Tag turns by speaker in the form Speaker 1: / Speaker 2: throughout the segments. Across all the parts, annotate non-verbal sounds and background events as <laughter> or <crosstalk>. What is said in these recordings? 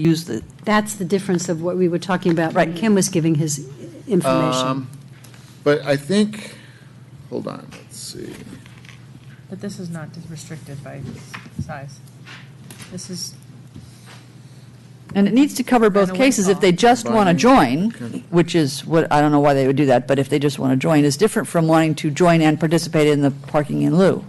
Speaker 1: use the,
Speaker 2: That's the difference of what we were talking about. when
Speaker 1: Right.
Speaker 2: Kim was giving his information.
Speaker 3: Um, But I think, hold on, let's see.
Speaker 4: But this is not restricted by s- size. This is,
Speaker 5: And it needs to cover both
Speaker 4: Kinda what
Speaker 5: cases. If
Speaker 4: all-
Speaker 5: they just want to
Speaker 3: Right.
Speaker 5: join,
Speaker 3: Okay.
Speaker 5: which is what, I don't know why they would do that, but if they just want to join, is different from wanting to join and participate in the parking in lieu.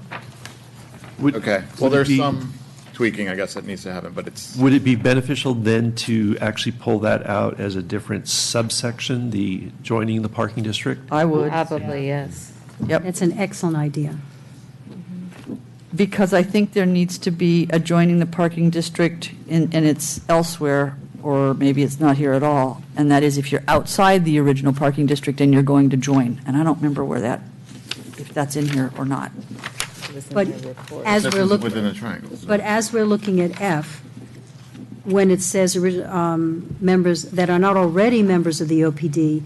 Speaker 6: Would-
Speaker 3: Okay, well,
Speaker 6: would it
Speaker 3: there's
Speaker 6: be-
Speaker 3: some tweaking, I guess, that needs to happen, but it's,
Speaker 6: Would it be beneficial then to actually pull that out as a different subsection, the joining the parking district?
Speaker 2: Uh,
Speaker 5: I would,
Speaker 7: Probably, yes.
Speaker 5: yep,
Speaker 2: That's an excellent idea.
Speaker 5: because I think there needs to be adjoining the parking district and, and it's elsewhere, or maybe it's not here at all. And that is if you're outside the original parking district and you're going to join. And I don't remember where that, if that's in here or not.
Speaker 2: But as
Speaker 3: this
Speaker 2: we're
Speaker 3: is
Speaker 2: looking.
Speaker 3: within the triangle. so-
Speaker 2: But as we're looking at F, when it says orig- um, members that are not already members of the OPD,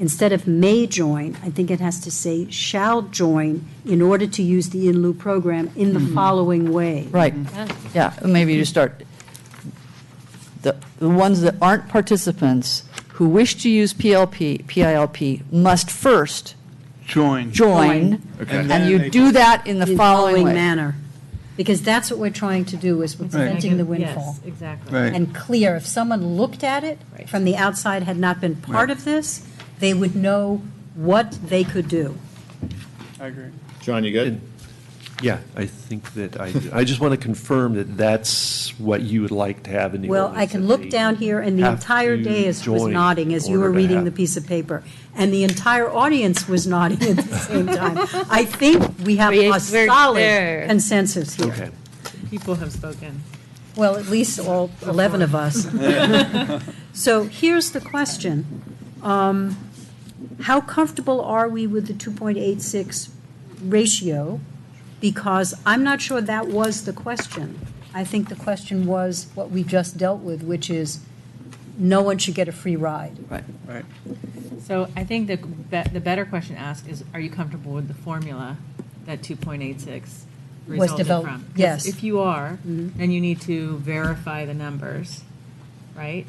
Speaker 2: instead of may join, I think it has to say shall join in order to use the in lieu program in the following way.
Speaker 5: Right,
Speaker 4: Mm-hmm.
Speaker 5: yeah, maybe you start, the, the ones that aren't participants who wish to use PLP, PILP must first
Speaker 8: Join.
Speaker 5: join,
Speaker 3: Okay.
Speaker 8: And
Speaker 5: and
Speaker 8: then
Speaker 5: you
Speaker 8: they-
Speaker 5: do that in the
Speaker 2: In
Speaker 5: following way.
Speaker 2: manner. Because that's what we're trying to do, is we're preventing the windfall.
Speaker 7: Yes, exactly.
Speaker 8: Right.
Speaker 2: And clear, if someone looked at it
Speaker 7: Right.
Speaker 2: from the outside, had not been part of this, they would know what they could do.
Speaker 8: I agree.
Speaker 3: John, you good?
Speaker 6: Yeah, I think that I, I just want to confirm that that's what you would like to have in the
Speaker 2: Well, I
Speaker 6: ordinance,
Speaker 2: can
Speaker 6: that
Speaker 2: look
Speaker 6: they
Speaker 2: down here, and the
Speaker 6: have
Speaker 2: entire
Speaker 6: to
Speaker 2: dais was
Speaker 6: join
Speaker 2: nodding as
Speaker 6: in
Speaker 2: you were
Speaker 6: order to
Speaker 2: reading
Speaker 6: have-
Speaker 2: the piece of paper, and the entire audience was <laughs> nodding at the same time. I think we have
Speaker 7: We-
Speaker 2: a
Speaker 7: we're
Speaker 2: solid
Speaker 7: there.
Speaker 2: consensus
Speaker 6: Okay.
Speaker 2: here.
Speaker 4: people have spoken.
Speaker 2: Well, at least all 11 of us. So here's the question. Um, How comfortable are we with the 2.86 ratio? Because I'm not sure that was the question. I think the question was what we just dealt with, which is, no one should get a free ride.
Speaker 8: Right.
Speaker 4: So I think the, be- the better question to ask is, are you comfortable with the formula that 2.86
Speaker 2: Was
Speaker 4: resulted from?
Speaker 2: developed,
Speaker 4: 'Cause
Speaker 2: yes.
Speaker 4: If you are, then you need to verify the numbers, right?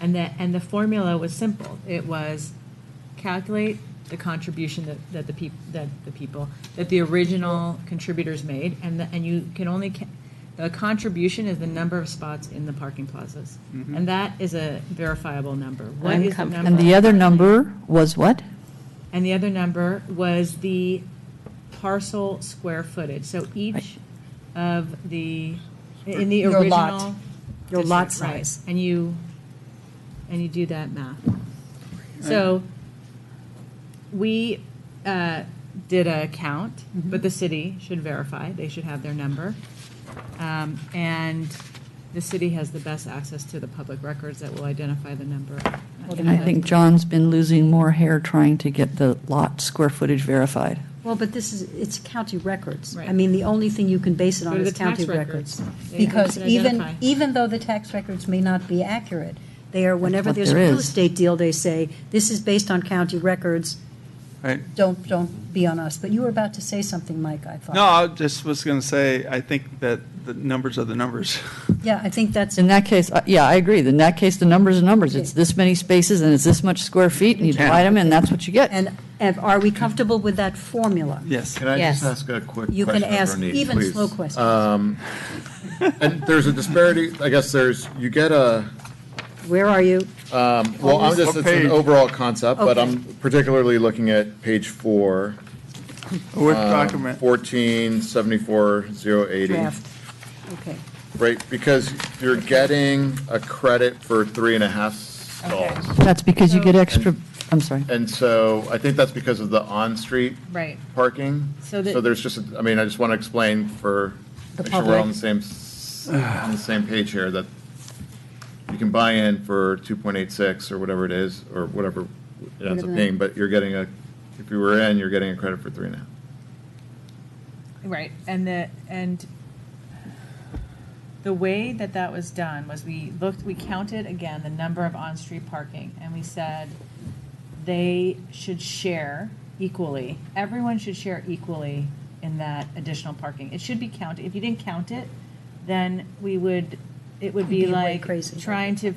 Speaker 4: And the, and the formula was simple. It was calculate the contribution that, that the people, that the people, that the original contributors made, and, the- and you can only, ca- the contribution is the number of spots in the parking plazas. And that is a verifiable number. What is the number?
Speaker 5: And the other number was what?
Speaker 4: And the other number was the parcel square footage. So each of the, in the
Speaker 2: Your lot.
Speaker 4: original.
Speaker 2: Your lot
Speaker 4: district, right.
Speaker 2: size.
Speaker 4: And you, and you do that math. So we uh, did a count,
Speaker 2: Mm-hmm.
Speaker 4: but the city should verify, they should have their number. Um, And the city has the best access to the public records that will identify the number.
Speaker 5: And I think John's been losing more hair trying to get the lot square footage verified.
Speaker 2: Well, but this is, it's county records. I
Speaker 4: Right.
Speaker 2: mean, the only thing you can base it
Speaker 4: Go
Speaker 2: on
Speaker 4: to
Speaker 2: is
Speaker 4: the tax
Speaker 2: county records.
Speaker 4: They
Speaker 2: Because
Speaker 4: can
Speaker 2: even,
Speaker 4: identify.
Speaker 2: even though the tax records may not be accurate, they are, whenever
Speaker 5: what
Speaker 2: there's a
Speaker 5: there
Speaker 2: real
Speaker 5: is.
Speaker 2: estate deal, they say, this is based on county records.
Speaker 8: Right.
Speaker 2: Don't, don't be on us. But you were about to say something, Mike, I thought.
Speaker 8: No, I just was going to say, I think that the numbers are the numbers. <laughs>
Speaker 2: Yeah, I think that's,
Speaker 5: In that case, uh, yeah, I agree. In that case, the numbers are numbers. It's this many spaces and it's this much square feet, and you divide them, and that's what you get.
Speaker 2: and, and are we comfortable with that formula?
Speaker 8: Yes.
Speaker 3: Can I just
Speaker 7: Yes.
Speaker 3: ask a quick question?
Speaker 2: You can
Speaker 3: of
Speaker 2: ask
Speaker 3: Ronit,
Speaker 2: even
Speaker 3: please? Um,
Speaker 2: slow questions.
Speaker 3: And there's a disparity, I guess there's, you get a,
Speaker 2: Where are you?
Speaker 3: well, I'm just, it's an overall concept, but
Speaker 2: Okay.
Speaker 3: I'm particularly looking at page four,
Speaker 8: Worth document.
Speaker 3: fourteen seventy-four zero eighty.
Speaker 2: Draft. Okay.
Speaker 3: Right, because you're getting a credit for three and a half
Speaker 4: Okay.
Speaker 3: stalls.
Speaker 5: That's because you get extra, I'm sorry.
Speaker 3: And so I think that's because of the on-street
Speaker 4: Right.
Speaker 3: parking.
Speaker 4: So that-
Speaker 3: So there's just, a- I mean, I just want to explain for,
Speaker 2: The
Speaker 3: make sure we're on
Speaker 2: public.
Speaker 3: the same, s- on the same page here, that you can buy in for 2.86 or whatever it is, or whatever it ends up
Speaker 2: Whatever.
Speaker 3: being, but you're getting a, if you were in, you're getting a credit for three and a half.
Speaker 4: Right, and the, and the way that that was done was we looked, we counted again the number of on-street parking, and we said they should share equally, everyone should share equally in that additional parking. It should be counted, if you didn't count it, then we would it would be
Speaker 2: People are
Speaker 4: like
Speaker 2: crazy.
Speaker 4: trying to